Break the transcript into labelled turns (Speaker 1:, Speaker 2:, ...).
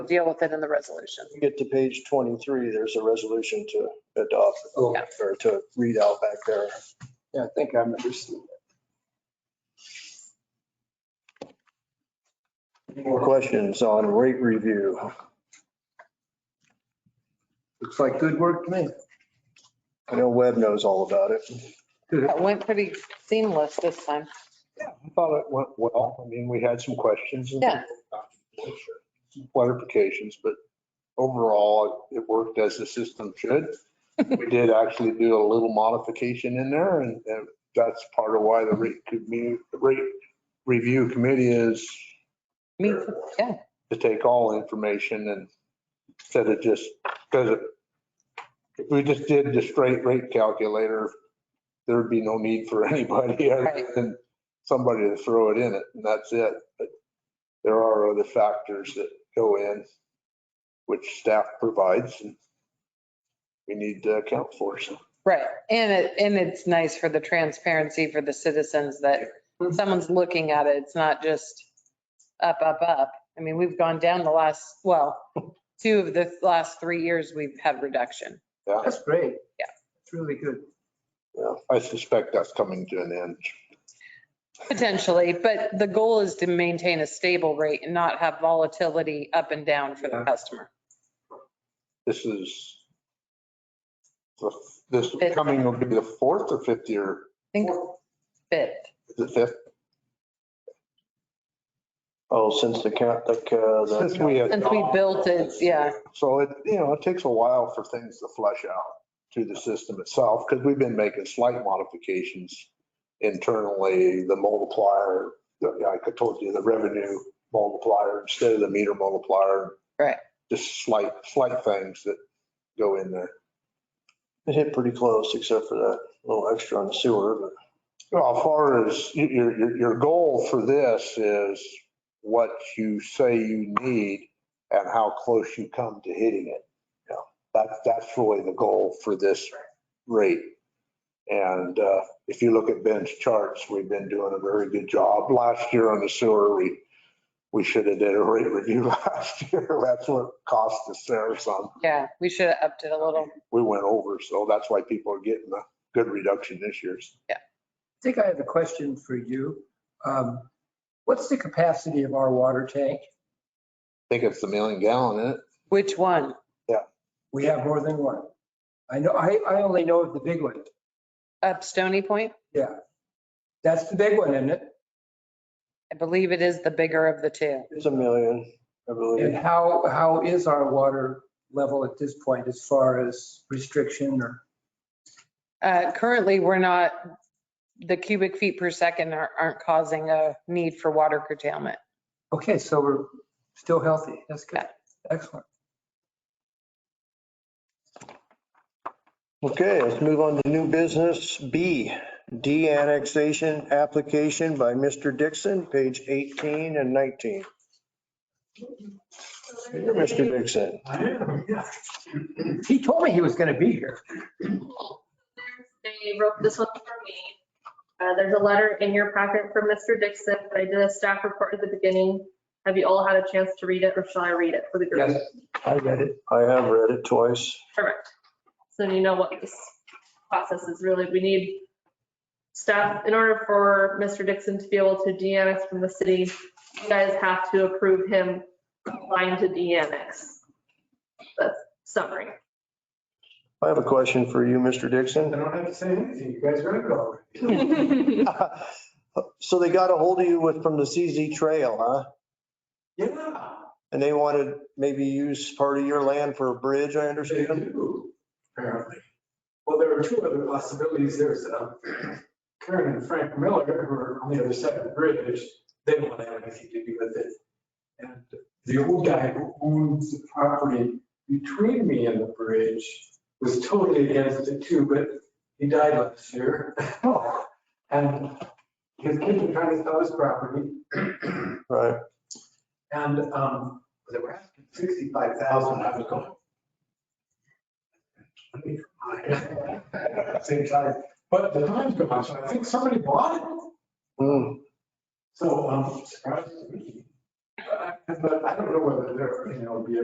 Speaker 1: deal with it in the resolution.
Speaker 2: you get to page 23, there's a resolution to adopt
Speaker 3: Oh.
Speaker 2: or to read out back there.
Speaker 3: Yeah, I think I remember seeing
Speaker 2: Any More questions on rate review.
Speaker 3: it. Looks like good work to me.
Speaker 2: I know Webb knows all about it.
Speaker 1: That went pretty seamless this time.
Speaker 4: Yeah, I thought it went well. I mean, we had some questions and
Speaker 1: Yeah.
Speaker 4: some clarifications, but overall, it worked as the system should. We did actually do a little modification in there and and that's part of why the rate commu- rate review committee is
Speaker 1: Me too. Yeah.
Speaker 4: to take all information and instead of just, because if we just did the straight rate calculator, there'd be no need for anybody other
Speaker 1: Right.
Speaker 4: than somebody to throw it in it, and that's it. But there are other factors that go in, which staff provides, and we need to account for, so.
Speaker 1: Right. And it, and it's nice for the transparency for the citizens that someone's looking at it. It's not just up, up, up. I mean, we've gone down the last, well, two of the last three years, we've had reduction.
Speaker 4: Yeah,
Speaker 3: That's great.
Speaker 1: Yeah.
Speaker 3: It's really good.
Speaker 4: yeah. I suspect that's coming to an end.
Speaker 1: Potentially, but the goal is to maintain a stable rate and not have volatility up and down for the
Speaker 3: Yeah.
Speaker 1: customer.
Speaker 4: This is, this
Speaker 1: Fifth.
Speaker 4: coming will be the fourth or fifth year
Speaker 1: I think fifth.
Speaker 4: The fifth,
Speaker 2: Oh, since the count, the, uh,
Speaker 4: since
Speaker 2: the,
Speaker 4: we had.
Speaker 1: Since we built it, yeah.
Speaker 4: So it, you know, it takes a while for things to flush out to the system itself, because we've been making slight modifications internally, the multiplier, the- like I told you, the revenue multiplier instead of the meter multiplier.
Speaker 1: Right.
Speaker 4: Just slight, slight things that go in there.
Speaker 2: it hit pretty close except for that little extra on the sewer, but.
Speaker 4: Well, as far as y- your, your, your goal for this is what you say you need and how close you come to hitting it. You know, That's, that's really the goal for this rate. And uh, if you look at Ben's charts, we've been doing a very good job. Last year on the sewer, we, we should have did a rate review last year. That's what cost us there some.
Speaker 1: Yeah, we should have upped it a little.
Speaker 4: We went over, so that's why people are getting a good reduction this year.
Speaker 3: I think I have a question for you. Um, What's the capacity of our water tank?
Speaker 4: I think it's the million gallon, isn't it?
Speaker 1: Which one?
Speaker 3: We have more than one. I know, I, I only know of the big one.
Speaker 1: Up Stony Point?
Speaker 3: Yeah. That's the big one, isn't it?
Speaker 1: I believe it is the bigger of the two.
Speaker 2: It's a million, I
Speaker 3: And
Speaker 2: believe.
Speaker 3: how, how is our water level at this point as far as restriction or?
Speaker 1: Uh, Currently, we're not, the cubic feet per second are- aren't causing a need for water curtailment.
Speaker 3: Okay, so we're still healthy. That's good. Excellent.
Speaker 2: Okay, let's move on to new business B, de-annexation application by Mr. Dixon, page 18 and 19. Here, Mr. Dixon.
Speaker 3: He told me he was going to be here.
Speaker 5: They wrote this one for me. Uh, There's a letter in your packet from Mr. Dixon, but I did a staff report at the beginning. Have you all had a chance to read it or shall I read it for the group?
Speaker 3: Yes, I read it.
Speaker 2: I have read it twice.
Speaker 5: Perfect. So then you know what this process is really. We need staff, in order for Mr. Dixon to be able to de-annex from the city, you guys have to approve him applying to de-annex. That's summary.
Speaker 2: I have a question for you, Mr. Dixon.
Speaker 3: don't have to say anything. You guys read it already.
Speaker 2: So they got a hold of you with, from the CZ Trail, huh?
Speaker 6: Yeah,
Speaker 2: And they wanted maybe use part of your land for a bridge, I
Speaker 6: they
Speaker 2: understand?
Speaker 6: do, apparently. Well, there are two other possibilities. There's um, Karen and Frank Miller, who are on the other side of the bridge. They don't want to have anything to do with it. And the old guy who owns the property between me and the bridge was totally against it too, but he died last year. And his kids are trying to sell his property.
Speaker 2: Right.
Speaker 6: And um, they were asking sixty-five thousand, I was going. "Twenty five." Same time, but the time's gone, so I think somebody bought it, um,
Speaker 2: Hmm.
Speaker 6: so I'm surprised to me. But I- But I don't know whether they're, you know, be